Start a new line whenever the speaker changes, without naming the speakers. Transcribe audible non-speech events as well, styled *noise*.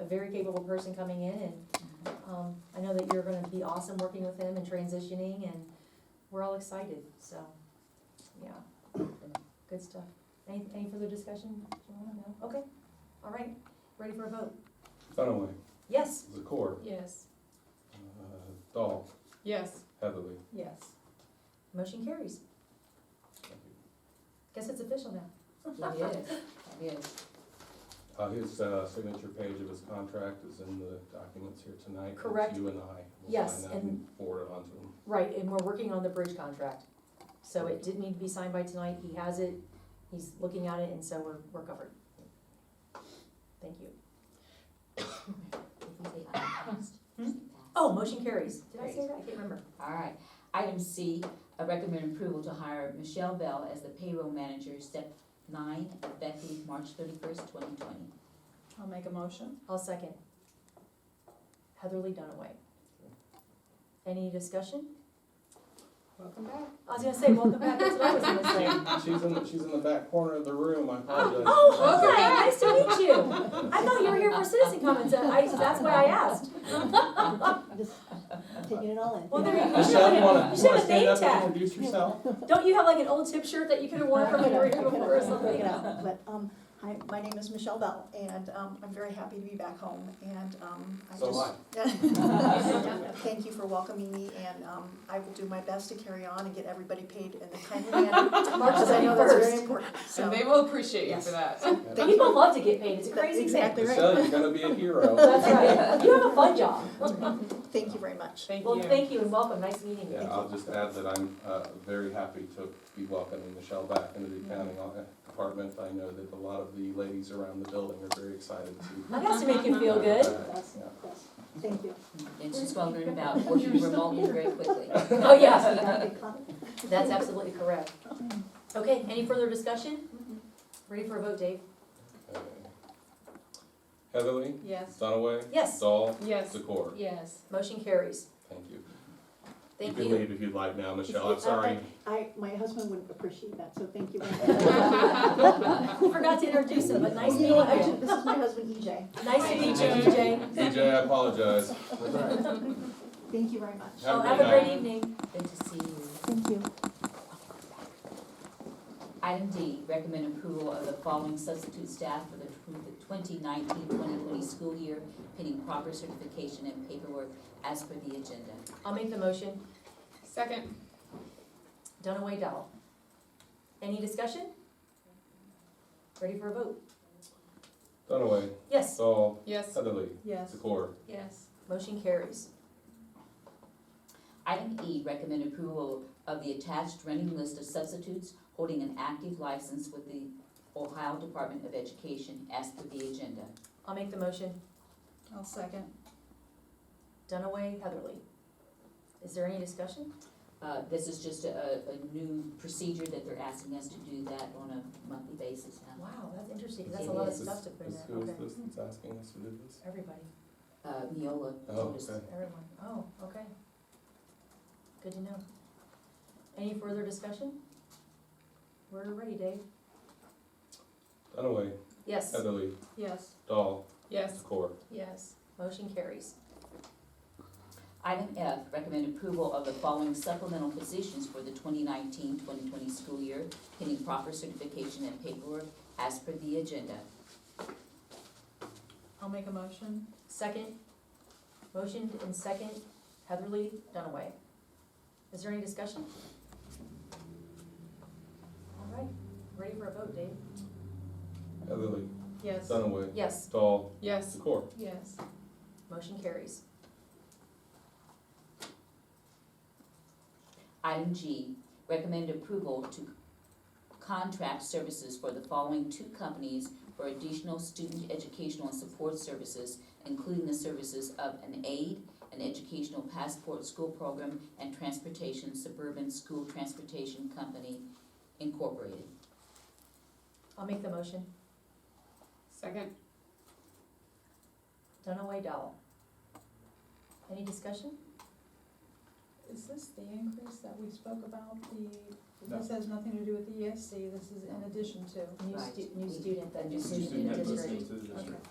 a very capable person coming in and, um, I know that you're gonna be awesome working with him and transitioning and we're all excited, so, yeah. Good stuff. Any, any further discussion? Do you wanna know? Okay, all right, ready for a vote?
Dunaway,
Yes?
Zakor,
Yes.
uh, Dahl,
Yes.
Heatherly.
Yes. Motion carries.
Thank you.
Guess it's official now.
It is, it is.
Uh, his, uh, signature page of his contract is in the documents here tonight. It's
Correct.
You and I. will
Yes,
sign that
and-
Forward it on to him.
Right, and we're working on the bridge contract. So it didn't need to be signed by tonight, he has it, he's looking at it, and so we're, we're covered. Thank you.
If you say item passed, just say passed.
Oh, motion carries. Did I say that? I can't remember.
All right, item C, I recommend approval to hire Michelle Bell as the payroll manager, step nine, effective March thirty-first, twenty twenty.
I'll make a motion.
I'll second. Heatherly Dunaway. Any discussion?
Welcome back.
I was gonna say, welcome back, that's what I was gonna say.
*laughs* She's in, the- she's in the back corner of the room, I apologize.
Oh, hi, nice to meet you. I thought you were here for citizen comments, and I, that's why I asked.
Just taking it all in.
Well, there you go.
Michelle, you wanna,
You
wanna
should have a
stand
name
up and
tag.
introduce yourself?
Don't you have like an old chip shirt that you could have worn from when you were here before or
Pick
something?
it up, But, um,
Hi, my name is Michelle Bell, and um, I'm very happy to be back home, and um, I
So
just.
am
*laughs* Thank you for welcoming me, and um, I will do my best to carry on and get everybody paid in the
*laughs*
timely manner, because I know that's very
31st.
important, so.
And they will appreciate you
Yes.
for that.
I.
Thank
People love to get paid, it's a
That's
crazy thing.
exactly right.
Michelle, you're gonna be a hero.
That's right. You have a fun job.
Thank you very much.
Thank you.
Well, thank you and welcome, nice meeting
Yeah,
you.
I'll just add that I'm uh, very happy to be welcoming Michelle back into the accounting o- department. I know that a lot of the ladies around the building are very excited to.
That has to make you feel good.
that's,
Yeah.
that's, thank you.
And she's well learned about working remotely very quickly.
Oh, yes,
Big comment.
that's absolutely correct. Okay, any further discussion? Ready for a vote, Dave?
Okay. Heatherly,
Yes.
Dunaway,
Yes,
Dahl,
Yes.
Zakor.
Yes.
motion carries.
Thank you.
Thank
You can
you.
leave if you'd like now, Michelle. I'm
Uh,
sorry.
I, my husband wouldn't appreciate that, so thank you.
*laughs*
Nice
*laughs* Forgot to introduce him, but nice meeting
meeting you.
you.
This is my husband
E
EJ.
Nice to meet
Hi,
you, EJ.
DJ, I apologize.
Thank you very much.
Have
Oh,
a
have
great
a great
night.
evening.
Good to see you.
Thank you.
Item D, recommend approval of the following substitute staff for the 2019-2020 school year, pending proper certification and paperwork as per the agenda.
I'll make the motion.
Second.
Dunaway Dowell. Any discussion? Ready for a vote?
Dunaway,
Yes,
Dahl,
Yes.
Heatherly,
Yes.
Zakor.
Yes.
motion carries.
Item E, recommend approval of the attached running list of substitutes holding an active license with the Ohio Department of Education as per the agenda.
I'll make the motion.
I'll second.
Dunaway, Heatherly. Is there any discussion?
Uh, this is just a, a a new procedure that they're asking us to do that on a monthly basis now.
Wow, that's interesting, 'cause
It
that's a lot of
is.
stuff to put in
This-
there.
Who is
Okay.
this that's asking us to do this?
Everybody,
Uh, Neola
Oh,
told us.
okay.
everyone. Oh, okay. Good to know. Any further discussion? We're ready, Dave.
Dunaway,
Yes,
Heatherly,
Yes.
Dahl,
Yes.
Zakor.
Yes.
motion carries.
Item F, recommend approval of the following supplemental positions for the 2019-2020 school year, pending proper certification and paperwork as per the agenda.
I'll make a motion.
Second, motioned and second, Heatherly Dunaway. Is there any discussion? All right, ready for a vote, Dave?
Heatherly,
Yes.
Dunaway,
Yes,
Dahl,
Yes.
Zakor.
Yes.
motion carries.
Item G, recommend approval to contract services for the following two companies for additional student educational and support services, including the services of an aid, an educational passport school program, and transportation suburban school transportation company incorporated.
I'll make the motion.
Second.
Dunaway Dowell. Any discussion?
Is this the increase that we spoke about, the,
No.
this has nothing to do with the ESC, this is in addition to?
New stu,
Right.
new student that
New
just
student
in the
that
district.
goes
to the district.